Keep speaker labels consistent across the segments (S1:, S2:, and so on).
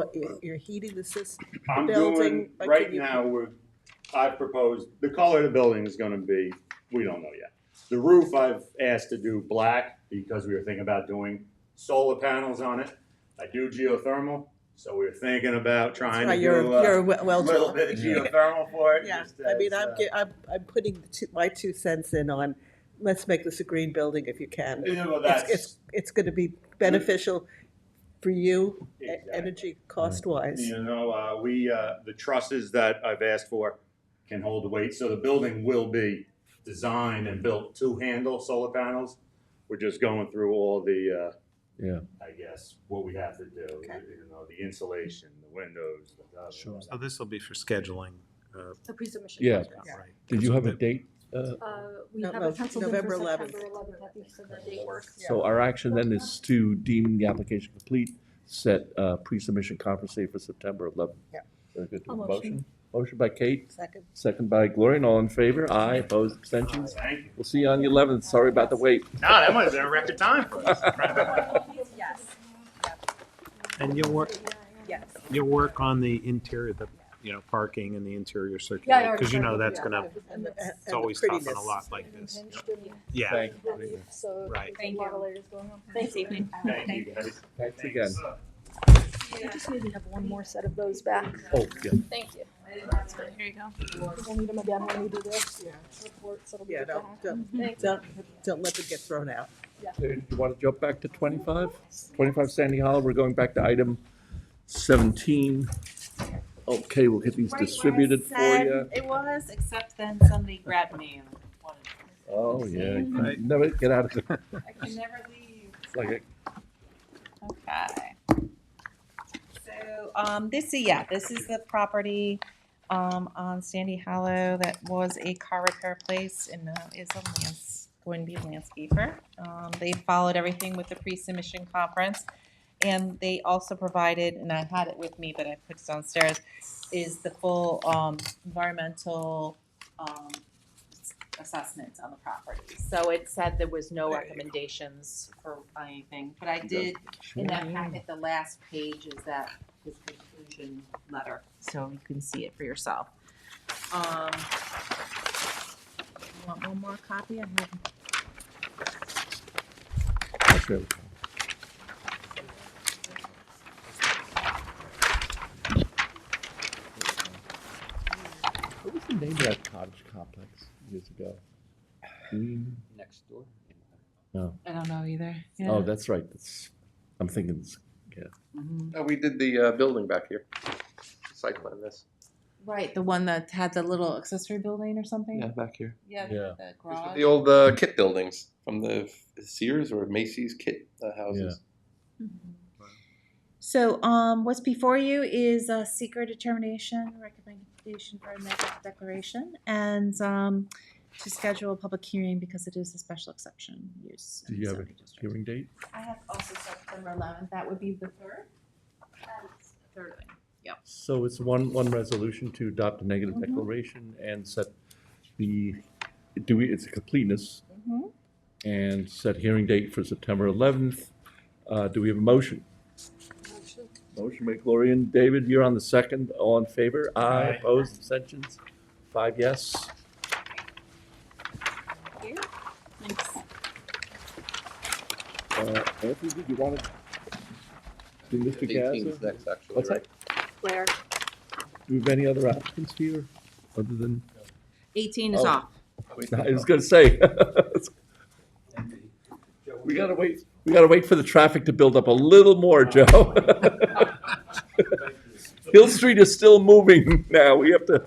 S1: But you're, you're heating the system,
S2: I'm
S1: building,
S2: doing,
S1: like,
S2: right
S1: can you-
S2: now, we're, I've proposed, the color of the building is gonna be, we don't know yet. The roof I've asked to do black because we were thinking about doing solar panels on it. I do geothermal, so we were thinking about trying to
S1: right, you're,
S2: do uh,
S1: you're a
S2: a
S1: well
S2: little
S1: drilled.
S2: bit of
S3: Yeah.
S2: geothermal for it.
S1: Yeah,
S2: just
S1: I
S2: as,
S1: mean, I'm,
S2: uh,
S1: gi- I'm, I'm putting the two- my two cents in on, let's make this a green building if you can.
S2: Yeah, well,
S1: It's,
S2: that's,
S1: it's, it's gonna be beneficial for you, e-
S2: Exactly.
S1: energy cost wise.
S2: you know, uh, we, uh, the trusses that I've asked for can hold the weight, so the building will be designed and built to handle solar panels. We're just going through all the, uh,
S3: Yeah,
S2: I guess, what we have to do,
S1: Okay.
S2: you know, the insulation, the windows, the. da- da- da-
S3: Sure.
S4: So Oh, this will be for scheduling, uh,
S5: The pre-submission.
S3: Yeah.
S5: process.
S1: Yeah.
S4: right?
S3: did you have a
S4: Because
S3: date? Uh,
S5: Uh, we
S1: No,
S5: have
S1: no,
S5: it penciled in
S1: November
S5: for
S1: 11th.
S5: September eleventh, I think, so that date works.
S3: So our action then is to deem the application complete, set uh, pre-submission conference date for September 11th.
S1: Yeah.
S3: Very good.
S5: I'll
S3: Motion,
S5: motion.
S3: motion by Kate,
S1: Second,
S3: second by Gloria, and all in favor? Aye, opposed, abstentions?
S2: Thank you.
S3: We'll see you on the 11th, sorry about the wait.
S2: No, that might have been a record time for us.
S5: Yes,
S4: And you'll work,
S5: yes.
S4: you'll work on the interior, the, you know, parking and the interior
S5: Yeah, I
S4: circulation,
S5: already
S4: because you know
S5: started,
S4: that's
S5: yeah.
S4: gonna,
S1: and the, and
S4: it's
S1: the
S4: always tough on
S1: prettiness.
S4: a lot like this.
S6: Impinged and
S4: Yeah,
S3: Thank-
S6: relief, so
S4: Right.
S6: there's a lot of layers going on.
S5: Thanks, evening.
S2: Thank you, guys.
S3: Thanks again.
S6: We just need to have one more set of those back.
S3: Oh, yeah,
S6: Thank you.
S5: Here you go.
S6: We'll need them again when we do this
S1: Yeah.
S6: report, so it'll be
S1: Yeah,
S6: good to
S1: don't,
S6: have.
S1: don't,
S6: Thanks.
S1: don't, don't let them get thrown out.
S3: you want to jump back to 25? 25 Sandy Hall, we're going back to item 17. Okay, we'll get these
S7: Right, what I
S3: distributed for
S7: said
S3: you.
S7: It was, except then somebody grabbed me and wanted,
S3: Oh, yeah, you
S4: Right.
S3: never get out of,
S7: I can never leave.
S3: it's like a
S7: Okay. So, um, this, is yeah, this is the property, um, on Sandy Hollow that was a car repair place and now is a lands, going to be a landscaper. Um, they followed everything with the pre-submission conference. And they also provided, and I had it with me, but I put it downstairs, is the full, um, environmental, um, assessment on the property. So it said there was no
S1: There you go.
S7: recommendations for anything, but I did in that packet, the last page is that, his conclusion letter, so you can see it for yourself. Um, you Want one more copy? I have
S3: Okay. What was the name of that cottage complex years ago? Green,
S8: next door.
S7: I don't know either.
S3: oh, that's right, that's, I'm thinking, it's-
S9: Uh, we did the uh, building back here, site plan this.
S7: Right, the one that had the little accessory building or
S9: Yeah,
S7: something?
S9: back here.
S7: Yeah,
S3: Yeah.
S7: the
S9: These were
S7: garage.
S9: The old uh, kit buildings from the Sears or Macy's kit uh, houses.
S7: So, um, what's before you is a secret determination, recommendation for a negative declaration, and, um, to schedule a public hearing because it is a special exception use.
S3: Do
S7: in
S3: you
S7: the
S3: have a
S7: zoning district.
S3: hearing date?
S7: I have also September eleventh, that would be the third? Third.
S3: So it's one, one resolution to adopt a negative
S7: Mhm.
S3: declaration and set the, do we, it's a completeness
S7: Mhm.
S3: and set hearing date for September eleventh. Uh, do we have a motion? Motion by Gloria and David, you're on the second, all in favor? Aye,
S4: Aye.
S3: opposed, abstentions? Five yes. Uh, Anthony, did you want to? Did Mr. Gaza?
S9: 18's next, actually.
S3: What's
S9: right?
S3: that? Do we have any other applicants here, other than,
S7: Eighteen is
S3: Oh.
S7: off.
S9: Wait,
S3: I was gonna say. We gotta wait, we gotta wait for the traffic to build up a little more, Joe. Hill Street is still moving now, we have to.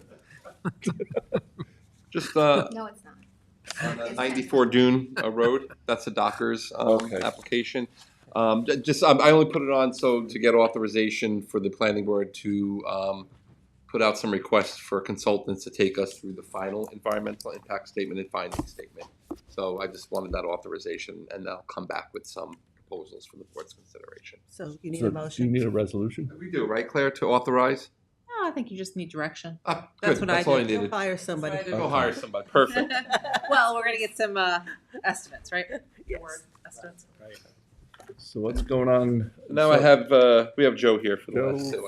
S9: Just uh,
S6: No, it's not.
S9: on uh, 94 Dune uh, Road, that's the Dockers um,
S3: Okay.
S9: application. Um, ju- Just, um, I only put it on so to get authorization for the planning board to um, put out some requests for consultants to take us through the final environmental impact statement and finding statement. So I just wanted that authorization, and I'll come back with some proposals for the board's consideration.
S1: So you need
S3: So,
S1: a
S3: do You
S1: motion.
S3: need a resolution?
S9: We do, right, Claire, to authorize?
S7: No, I think you just need direction.
S9: Ah,
S7: That's
S9: good,
S7: what I
S9: That's all I
S7: did.
S9: needed.
S1: Hire somebody.
S7: That's what I
S9: Go
S3: Okay.
S9: hire somebody. Perfect.
S7: Well, we're gonna get some, uh, estimates, right?
S1: Yes.
S7: Word Estimates.
S4: Right.
S9: So what's going on?
S3: Now I
S9: So-
S3: have, uh, we have Joe here for the
S9: Joe
S3: last two.
S9: for